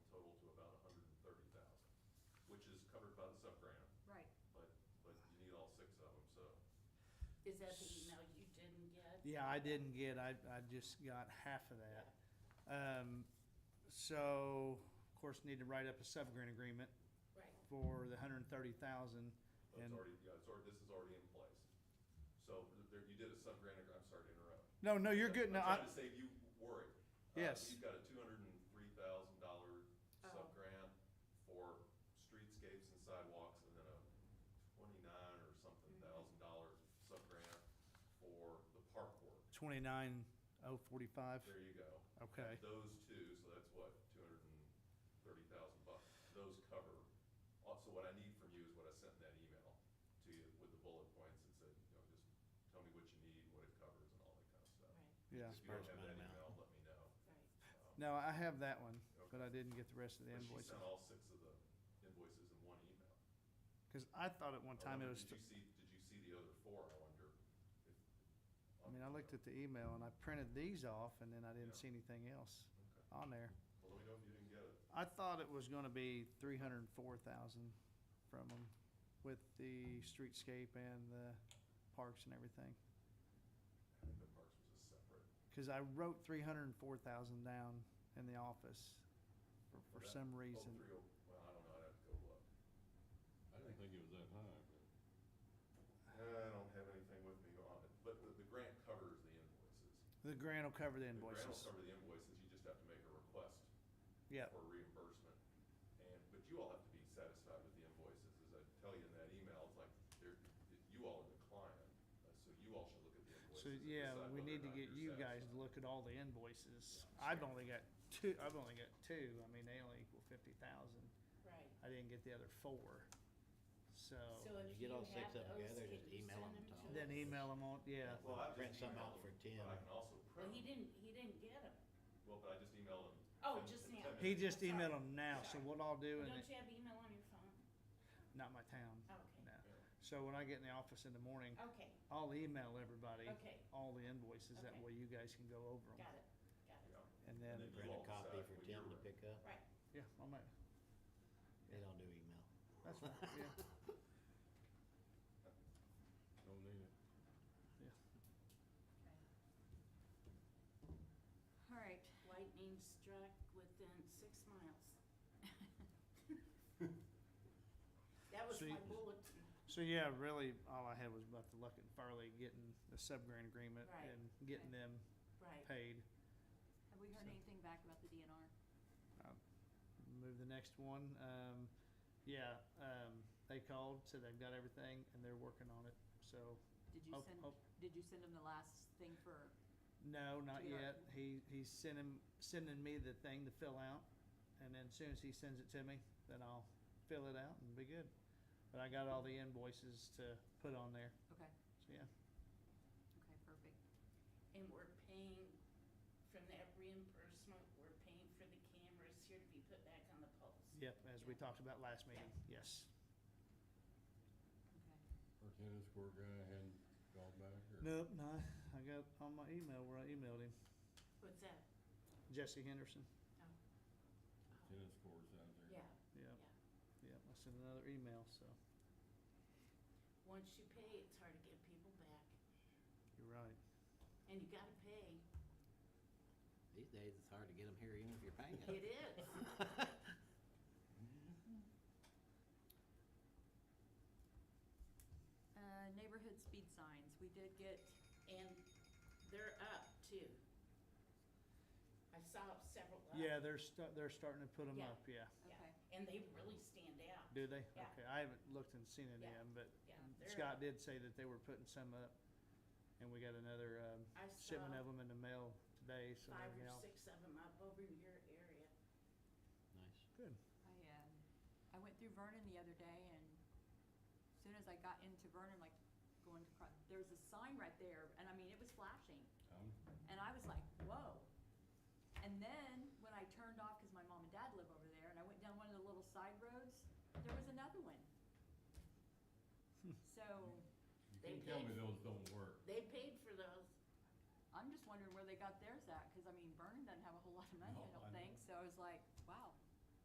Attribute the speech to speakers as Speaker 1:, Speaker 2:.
Speaker 1: covered by the sub-grant,
Speaker 2: Right.
Speaker 1: but, but you need all six of them, so.
Speaker 3: Is that the email you didn't get?
Speaker 4: Yeah, I didn't get, I, I just got half of that. Um, so, of course, need to write up a subgrant agreement
Speaker 3: Right,
Speaker 4: for the hundred and thirty thousand.
Speaker 1: but It's
Speaker 4: And,
Speaker 1: already, yeah, it's already, this is already in place. So there, you did a sub-grant, ag- I'm sorry to interrupt.
Speaker 4: no, no, you're good, no,
Speaker 1: I'm trying
Speaker 4: I,
Speaker 1: to save you worry. Uh,
Speaker 4: Yes.
Speaker 1: You've got a two hundred and three thousand dollar
Speaker 3: Oh.
Speaker 1: sub-grant for streetscapes and sidewalks, and then a twenty-nine or something thousand dollar sub-grant for the park work.
Speaker 4: twenty-nine oh forty-five,
Speaker 1: There you go.
Speaker 4: okay.
Speaker 1: Those two, so that's what, two hundred and thirty thousand bucks, those cover. Also, what I need from you is what I sent in that email to you with the bullet points that said, you know, just tell me what you need, what it covers, and all that kind of stuff.
Speaker 3: right,
Speaker 4: Yeah,
Speaker 1: If you don't have that
Speaker 5: Disbursement
Speaker 1: email, let
Speaker 5: amount.
Speaker 1: me know. Um,
Speaker 3: right.
Speaker 4: no, I have that one, but
Speaker 1: Okay.
Speaker 4: I didn't get the rest of the
Speaker 1: But she
Speaker 4: invoices.
Speaker 1: sent all six of the invoices in one email.
Speaker 4: Cause I thought at one
Speaker 1: I
Speaker 4: time it
Speaker 1: wonder,
Speaker 4: was,
Speaker 1: Did you see, did you see the other four, I wonder? if- uh,
Speaker 4: I mean, I looked at the email and I printed these off and then I
Speaker 1: Yeah.
Speaker 4: didn't see anything else
Speaker 1: Okay.
Speaker 4: on there.
Speaker 1: Well, let me know if you didn't get it.
Speaker 4: I thought it was gonna be three hundred and four thousand from them with the streetscape and the parks and everything.
Speaker 1: I think the parks was a separate.
Speaker 4: Cause I wrote three hundred and four thousand down in the office for, for
Speaker 1: That-
Speaker 4: some
Speaker 1: oh,
Speaker 4: reason.
Speaker 1: 30 Well, I don't know, I'd have to go look.
Speaker 5: I didn't think it was that high,
Speaker 1: I don't have anything with me on it, but the, the grant covers the invoices.
Speaker 4: The grant will cover the
Speaker 1: The grant
Speaker 4: invoices.
Speaker 1: will cover the invoices, you just have to make a request
Speaker 4: Yeah,
Speaker 1: for reimbursement. And, but you all have to be satisfied with the invoices, as I tell you in that email, it's like, they're, you all are the client, uh, so you all should look at the invoices.
Speaker 4: so
Speaker 1: and
Speaker 4: yeah,
Speaker 1: decide
Speaker 4: we
Speaker 1: whether or
Speaker 4: need to
Speaker 1: not
Speaker 4: get
Speaker 1: you're
Speaker 4: you guys to
Speaker 1: satisfied.
Speaker 4: look at all the invoices. I've only got two, I've only got two. I mean, they only equal fifty thousand.
Speaker 3: Right.
Speaker 4: I didn't get the other four.
Speaker 3: So
Speaker 4: So,
Speaker 3: if
Speaker 5: Oh,
Speaker 3: you
Speaker 5: You get all
Speaker 3: have
Speaker 5: six of them
Speaker 3: those,
Speaker 5: together,
Speaker 3: can
Speaker 5: just
Speaker 3: you send
Speaker 5: email them
Speaker 3: them
Speaker 5: to
Speaker 3: to
Speaker 4: then
Speaker 5: them.
Speaker 4: email them on, yeah.
Speaker 1: Well, I
Speaker 5: Print
Speaker 1: just
Speaker 5: some
Speaker 1: emailed
Speaker 5: out for
Speaker 1: them,
Speaker 5: 10.
Speaker 1: But I can also print
Speaker 3: Well, he
Speaker 1: them.
Speaker 3: didn't, he didn't get them.
Speaker 1: Well, but I just emailed them.
Speaker 3: Oh,
Speaker 1: Ten-
Speaker 3: just
Speaker 1: ten
Speaker 3: now.
Speaker 1: minutes
Speaker 4: He just
Speaker 3: Sorry.
Speaker 4: emailed them now, so
Speaker 3: Sorry.
Speaker 4: what I'll do, and
Speaker 3: Don't you
Speaker 4: it-
Speaker 3: have email on your phone?
Speaker 4: not my town.
Speaker 3: Okay.
Speaker 4: no.
Speaker 1: Yeah.
Speaker 4: So when I get in the office in the morning,
Speaker 3: Okay,
Speaker 4: I'll email everybody.
Speaker 3: Okay.
Speaker 4: All the invoices, that
Speaker 3: Okay.
Speaker 4: way you guys can go over them.
Speaker 3: got it, got
Speaker 1: Yeah.
Speaker 3: it.
Speaker 4: And
Speaker 1: And
Speaker 4: then,
Speaker 1: then-
Speaker 5: Print a copy
Speaker 1: When
Speaker 5: for ten to
Speaker 1: you're-
Speaker 5: pick up.
Speaker 3: Right,
Speaker 4: yeah, I might,
Speaker 5: They don't do email.
Speaker 4: that's fine, yeah,
Speaker 5: Don't need it.
Speaker 4: yeah.
Speaker 3: okay.
Speaker 2: All right.
Speaker 3: Lightning struck within six miles. That was
Speaker 4: So you-
Speaker 3: my bulletin.
Speaker 4: So yeah, really, all I had was about the Luckett and Farley getting the subgrant agreement
Speaker 3: Right.
Speaker 4: and getting
Speaker 2: Okay.
Speaker 4: them
Speaker 3: Right.
Speaker 4: paid.
Speaker 2: Have we heard
Speaker 4: So-
Speaker 2: anything back about the DNR?
Speaker 4: I'll Move the next one, um, yeah, um, they called, said they've got everything, and they're working on it, so
Speaker 2: Did you
Speaker 4: Oh,
Speaker 2: send,
Speaker 4: oh.
Speaker 2: did you send them the last thing for,
Speaker 4: No, not
Speaker 2: Do you
Speaker 4: yet.
Speaker 2: not-
Speaker 4: He, he's sending, sending me the thing to fill out, and then as soon as he sends it to me, then I'll fill it out and be good. But I got all the invoices to put on there,
Speaker 2: okay,
Speaker 4: so yeah.
Speaker 2: okay, perfect.
Speaker 3: And we're paying, from that reimbursement, we're paying for the cameras here to be put back on the poles.
Speaker 4: Yep, as we
Speaker 3: Yeah.
Speaker 4: talked about last meeting, yes.
Speaker 2: Okay.
Speaker 6: Our tennis court guy hadn't called back or?
Speaker 4: Nope, no, I got on my email where I emailed him,
Speaker 3: What's that?
Speaker 4: Jesse Henderson.
Speaker 3: Oh. Oh,
Speaker 6: Tennis courts out there?
Speaker 3: Yeah, yeah.
Speaker 4: Yep, yep, I sent another email, so
Speaker 3: Once you pay, it's hard to get people back,
Speaker 4: you're right.
Speaker 3: and you gotta pay.
Speaker 5: These days, it's hard to get them here even if you're paying them.
Speaker 3: It is.
Speaker 6: Mm-hmm.
Speaker 2: Uh, neighborhood speed signs, we did get,
Speaker 3: And they're up too. I saw several up.
Speaker 4: Yeah, they're sta- they're starting to put them
Speaker 3: Yeah.
Speaker 4: up, yeah.
Speaker 3: Yeah,
Speaker 2: Okay.
Speaker 3: and they really stand out.
Speaker 4: Do they?
Speaker 3: Yeah.
Speaker 4: Okay, I haven't looked and seen any
Speaker 3: Yeah.
Speaker 4: of them, but
Speaker 3: Yeah, they're
Speaker 4: Mm. Scott
Speaker 3: up.
Speaker 4: did say that they were putting some up, and we got another
Speaker 3: I
Speaker 4: um, shipment
Speaker 3: saw
Speaker 4: of them in the mail today, so
Speaker 3: Five
Speaker 4: maybe
Speaker 3: or
Speaker 4: I'll.
Speaker 3: six of them up over in your area.
Speaker 5: Nice.
Speaker 4: Good.
Speaker 2: I, um, I went through Vernon the other day and as soon as I got into Vernon, like going to, cro- there was a sign right there and I mean, it was flashing.
Speaker 6: Um,
Speaker 2: And I was like, whoa. And then when I turned off, because my mom and dad live over there, and I went down one of the little side roads, there was another one. So
Speaker 6: You
Speaker 3: They
Speaker 6: can tell me
Speaker 3: paid-
Speaker 6: those don't work.
Speaker 3: They paid for those.
Speaker 2: I'm just wondering where they got theirs at, because I mean, Vernon doesn't have a whole lot of money, I
Speaker 6: No, I
Speaker 2: don't
Speaker 6: know.
Speaker 2: think. So I was like,